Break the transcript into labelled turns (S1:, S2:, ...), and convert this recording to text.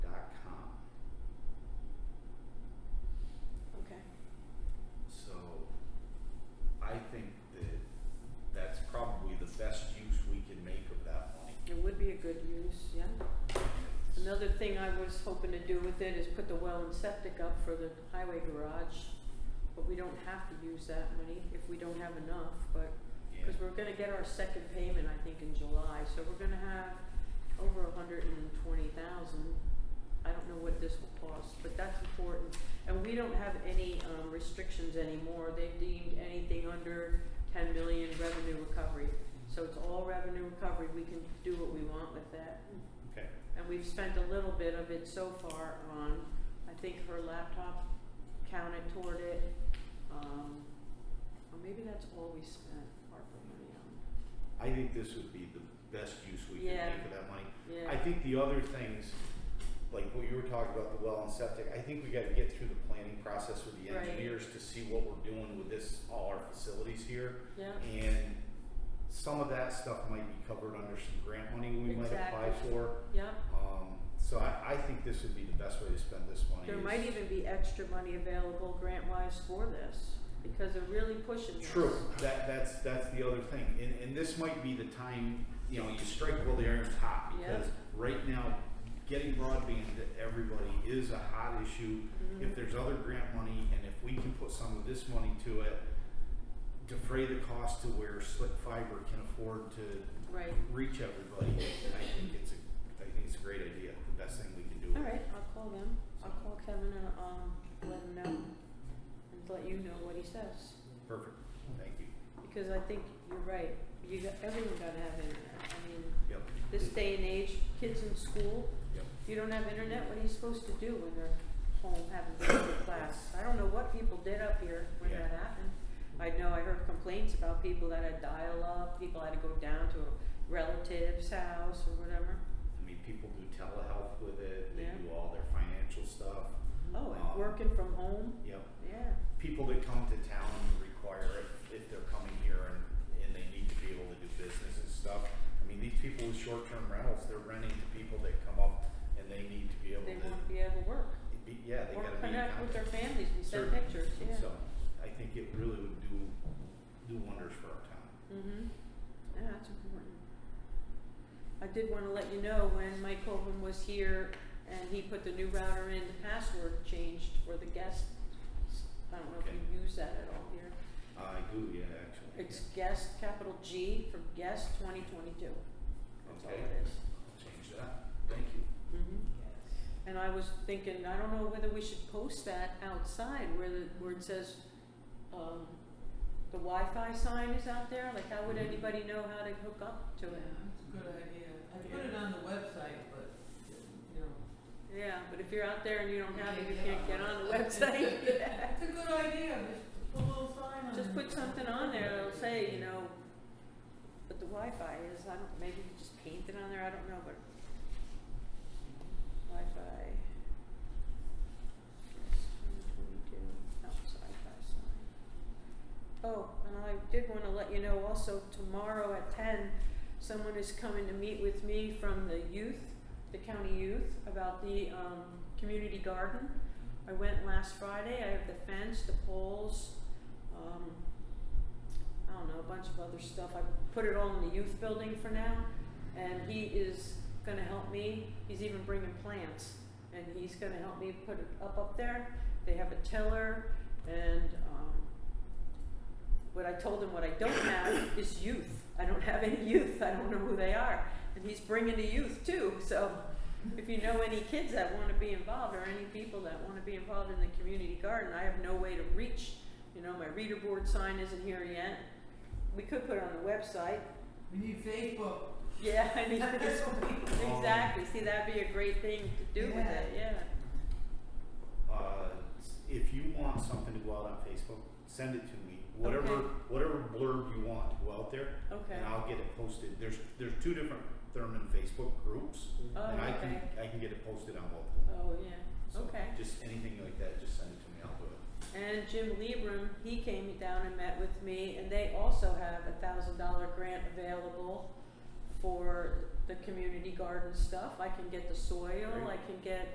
S1: was hoping to do with it is put the well and septic up for the highway garage, but we don't have to use that money if we don't have enough, but, cause we're gonna get our second payment, I think, in July, so we're gonna have over a hundred and twenty thousand. I don't know what this will cost, but that's important, and we don't have any, um, restrictions anymore, they've deemed anything under ten million revenue recovery. So it's all revenue recovery, we can do what we want with that.
S2: Okay.
S1: And we've spent a little bit of it so far on, I think her laptop counted toward it, um, or maybe that's all we spent ARPA money on.
S2: I think this would be the best use we could
S1: Yeah.
S2: make of that money. I
S1: Yeah,
S2: think the other things, like what you were talking about, the well and septic, I think we gotta get through the planning process with the
S1: Right.
S2: engineers to see what we're doing with this, all our facilities here.
S1: yeah,
S2: And some of that stuff might be covered under some grant money we might apply
S1: Exactly.
S2: for.
S1: yeah.
S2: Um, so I, I think this would be the best way to spend this money.
S1: There
S2: is-
S1: might even be extra money available grant-wise for this, because they're really pushing this.
S2: True, that, that's, that's the other thing, and, and this might be the time, you know, you strike while the iron's hot,
S1: Yeah.
S2: because right now, getting broadband to everybody is a hot issue.
S1: Mhm.
S2: If there's other grant money, and if we can put some of this money to it, defray the cost to where slick fiber can afford to
S1: Right,
S2: reach everybody, I think it's a, I think it's a great idea, the best thing we can do.
S1: all right, I'll call them, I'll call Kevin and, um, let him know, and let you know what he says.
S2: Perfect, thank you,
S1: Because I think you're right, you got, everyone gotta have internet, I mean,
S2: yep,
S1: this day and age, kids in school,
S2: yep.
S1: if you don't have internet, what are you supposed to do when they're home having to go to class? I don't know what people did up here when
S2: Yeah.
S1: that happened. I know I heard complaints about people that had dial-up, people had to go down to a relative's house or whatever.
S2: I mean, people do telehealth with it, they
S1: Yeah.
S2: do all their financial stuff.
S1: Oh,
S2: Mm-hmm. Wow.
S1: and working from home,
S2: Yep.
S1: yeah,
S2: People that come to town require it if they're coming here and, and they need to be able to do business and stuff. I mean, these people with short-term rentals, they're renting to people that come up and they need to be able to,
S1: they wanna be able to work,
S2: be- yeah, they
S1: or
S2: gotta be in
S1: connect with their
S2: contact.
S1: families, we send
S2: Certainly.
S1: pictures, yeah.
S2: So, I think it really would do, do wonders for our town.
S1: Mm-hmm. Yeah, that's important. I did wanna let you know, when Mike Colvin was here and he put the new router in, the password changed for the guest. I don't know if you use that at all here.
S2: I do, yeah, actually.
S1: It's guest, capital G for guest twenty twenty-two. That's all
S2: Okay.
S1: it is.
S2: I'll Change that, thank you.
S1: Mm-hmm. And I was thinking, I don't know whether we should post that outside where the, where it says, um, the Wi-Fi sign is out there, like how would anybody know how to hook up to
S3: Yeah,
S1: it?
S3: that's a good idea. I put it on the website, but, you know.
S1: Yeah, but if you're out there and you don't have it, you
S3: Yeah.
S1: can't get on the website. Yeah.
S3: It's a good idea, just put a little sign on it.
S1: Just put something on there that'll say, you know, but the Wi-Fi is, I don't, maybe you could just paint it on there, I don't know, but Wi-Fi. Twenty-two, oh, outside by sign. Oh, and I did wanna let you know also, tomorrow at ten, someone is coming to meet with me from the youth, the county youth, about the, um, community garden. I went last Friday, I have the fence, the poles, um, I don't know, a bunch of other stuff. I put it all in the youth building for now, and he is gonna help me. He's even bringing plants, and he's gonna help me put it up up there. They have a tiller, and um, what I told him, what I don't have is youth. I don't have any youth. I don't know who they are, and he's bringing the youth too. So, if you know any kids that want to be involved, or any people that want to be involved in the community garden, I have no way to reach you know, my reader board sign isn't here yet. We could put it on the website.
S3: We need Facebook.
S1: Yeah, I mean, this exactly. See, that'd be a great thing to do with it, yeah.
S2: uh, if you want something to go out on Facebook, send it to me. Whatever
S1: Okay.
S2: whatever blurb you want to go out there,
S1: Okay.
S2: and I'll get it posted. There's there's two different Thurman Facebook groups,
S1: Oh,
S2: and I can
S1: okay.
S2: I can get it posted on both. of them.
S1: Oh, yeah.
S2: So
S1: Okay.
S2: Just anything like that, just send it to me. I'll do it.
S1: And Jim Liebram, he came down and met with me, and they also have a thousand dollar grant available for the community garden stuff. I can get the soil, I
S2: Great.
S1: can get